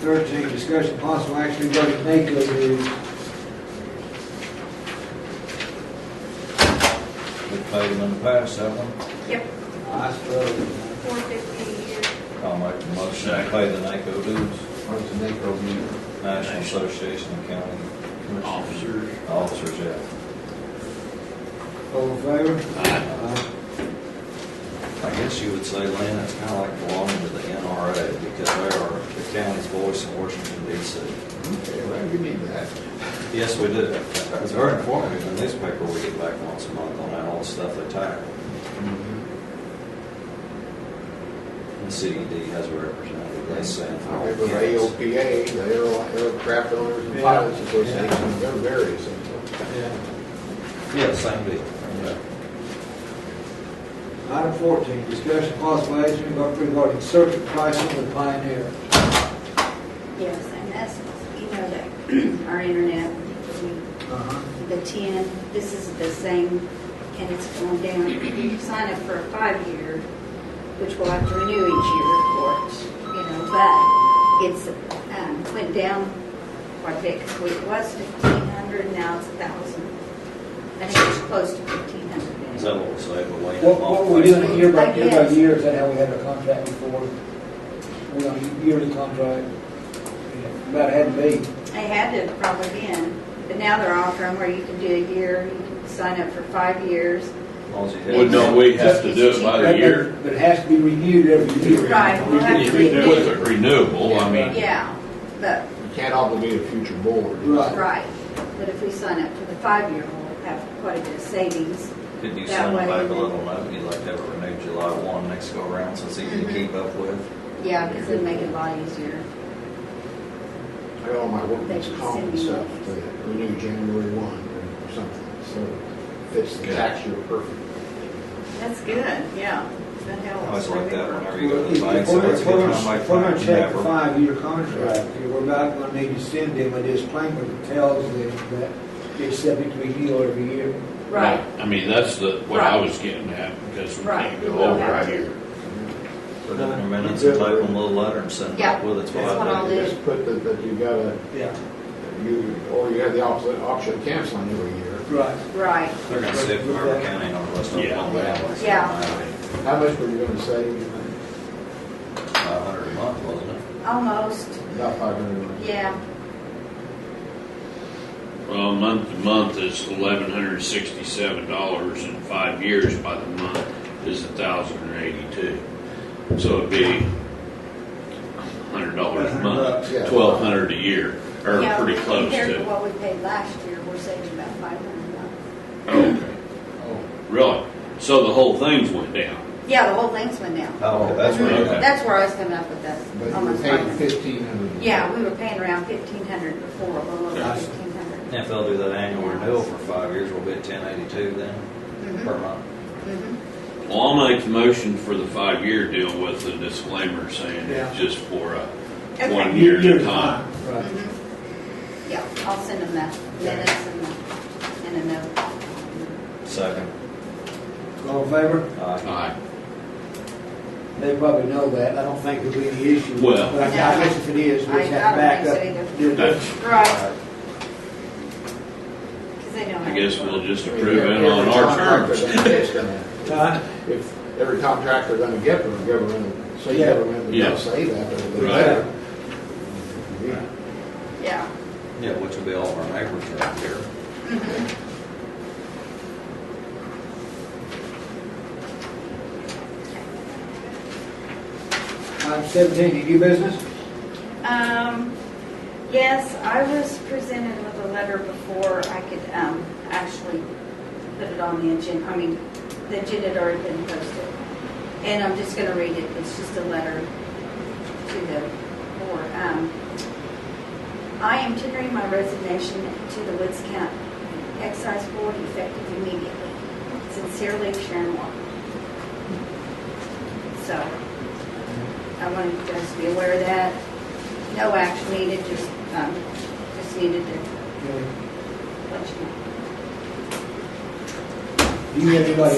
thirteen, discussion possible action regarding NACO bids. We paid them in the past, that one. Yep, I suppose. four fifty a year. I'll make the motion to pay the NACO dues, What's the name of the National Association of County Commissioners. Officers. Officers, yeah. All in favor? Aye. Aye. I guess you would say, Lynn, it's kind of like belonging to the NRA because they are the county's voice in Washington DC. Okay, well, you need that. Yes, we do. It's very informative. In the newspaper, we get back once a month on all the stuff they tackle. The CED has a representative. They send for all Okay, but counties. AOPA, the air, aircraft owners and Yeah. pilots association, they're very essential. Yeah. Yeah, same deal. Item fourteen, discussion possible action regarding circuit pricing with Pioneer. Yes, and that's, you know, that our internet, we- Uh-huh. the 10, this is the same, and it's going down. You sign up for a five-year, which we'll have to renew each year, of course, you know, but it's, um, went down quite a bit, 'cause it was 1,500, now it's 1,000. I think it's close to 1,500. Is that what we say, but wait. What, what were we doing it year by, Like year by this. year? Is that how we had our contract before? We on a yearly contract? About had to be. They had to have probably been, but now they're offering where you can do a year, you can sign up for five years. Well, don't we have to do it by the year? But it has to be renewed every year. Right, we'll have to We did- renew. With a renewable, I mean, Yeah, but, You can't obligate a future board. Right. right, but if we sign up for the five-year, we'll have quite a bit of savings. Could you That send way. back a little note, you'd like to have it renewed July one next go around, so it's easy to Mhm. keep up with? Yeah, because it'll make it a lot easier. I got all my workman's comp and stuff, to renew January one or something, so fits the tax year perfect. That's good, yeah. That I always helps. like that whenever you go Well, to If the bank, so it's a if good we're, time, like, if we're gonna you check have the a- five-year contract, we're about gonna need to send them a disclaimer that tells them that it's subject to renewal every year. Right, I mean, that's the, what I Right. was getting at, because we Right. can't go We don't over have a to. year. Put it in your minutes and type them a little letter and send it Yeah, back with it. that's what I'll do. do. Just put that, that you gotta, Yeah. you, or you have the option, option of canceling every year. Right. right. They're gonna see if Carver County, Northwest Yeah. Oklahoma, Alabama. Yeah. How much were you gonna save? you think? Five hundred a month, wasn't it? Almost, About five hundred. yeah. Well, month to month is eleven hundred sixty-seven dollars, and five years by the month is a thousand and eighty-two. So it'd be hundred dollars a month, Yeah. twelve hundred a year, or Yeah, pretty close Compared to to. what we paid last year, we're saving about five hundred bucks. Okay, Oh, really? So the whole things went down? Yeah, the whole thing's went down. Oh, that's where you right. got- That's where I was coming up with that, But you were almost five paying hundred. fifteen hundred. Yeah, we were paying around fifteen hundred before, a little over Gotcha. fifteen hundred. If they'll do that annual renewal for five years, we'll be at ten eighty-two then, Mm-hmm. per month. Well, I'll make the motion for the five-year deal with the disclaimer saying Yeah. it's just for a Okay. one year at a time. Right. Yeah, I'll send them the minutes and the, and a note. Second. uh, All in favor? Aye. Aye. They probably know that. I don't think there'll be any issue. Well- But I I guess if it is, we I- just I have to don't back think up. so Do it. That's- Right. Because they don't. I have guess to- we'll just approve it on our terms. Huh? If every contract they're gonna get from the government, state Yeah. government, they Yeah. don't say that, but they Right. better. Yeah. Yeah. Yeah, which will be all of our neighbors around here. Item seventeen, any new business? Um, yes, I was presented with a letter before I could, um, actually put it on the agenda. I mean, the agenda had already been posted. And I'm just gonna read it. It's just a letter to the board. Um, I am tendering my resignation to the Woods County Excise Board effective immediately. Sincerely, Sharon Walker. So, I wanted you guys to be aware of that. No action needed, just, um, just needed to Do let you know. you have anybody